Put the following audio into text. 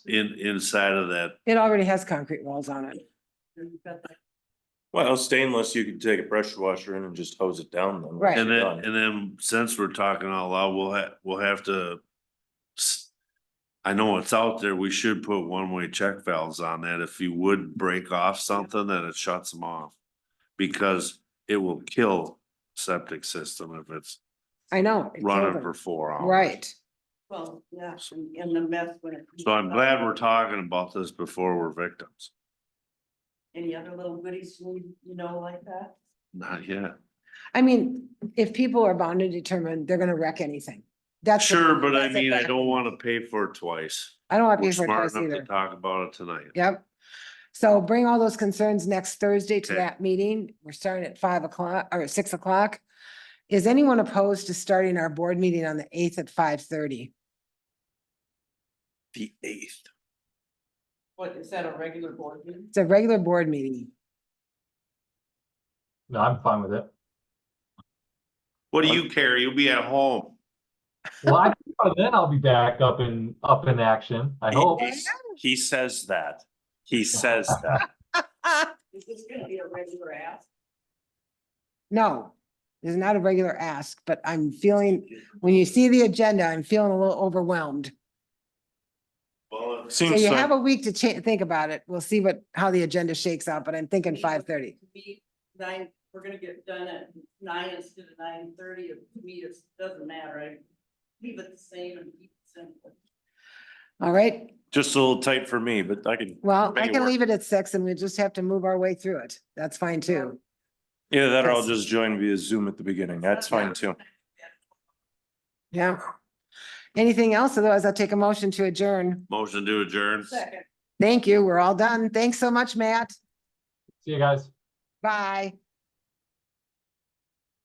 in, inside of that. It already has concrete walls on it. Well, stainless, you could take a pressure washer in and just hose it down then. Right. And then, Done. and then since we're talking out loud, we'll ha- we'll have to. s- I know it's out there. We should put one-way check valves on that. If you would break off something, then it shuts them off. Because it will kill septic system if it's I know. it killed running them. for four hours. Right. Well, yeah, and- and the mess when it. So I'm glad we're talking about this before we're victims. Any other little goodies, you you know, like that? Not yet. I mean, if people are bound to determine, they're gonna wreck anything. That's. the- Sure, but I that's a mean, I fact. don't wanna pay for it twice. I don't want We're people smart twice enough to either. talk about it tonight. Yep. So bring all those concerns next Thursday to Okay. that meeting. We're starting at five o'clock or six o'clock. Is anyone opposed to starting our board meeting on the eighth at five thirty? The eighth. What, is that a regular board meeting? It's a regular board meeting. No, I'm fine with it. What do you care? You'll be at home. Well, I, think by then I'll be back up in, up in action, I hope. He says that. He says that. Ah, Is this gonna be a regular ask? No, this is not a regular ask, but I'm feeling, when you see the agenda, I'm feeling a little overwhelmed. Well, So Seems you like, have a week to cha- think about it. We'll see what, how the agenda shakes out, but I'm thinking five thirty. Meet nine, we're gonna get done at nine instead of nine thirty, to me, it doesn't matter, I leave it the same and keep it simple. All right, just a little tight for me, but I can, well, I Make it can work. leave it at six and we just have to move our way through it. That's fine too. yeah, that or I'll That's- just join via Zoom at the beginning. That's fine too. Yeah. Anything else? Otherwise I'll take a motion to adjourn. Motion to adjourn. Second. Thank you. We're all done. Thanks so much, Matt. See you guys. Bye.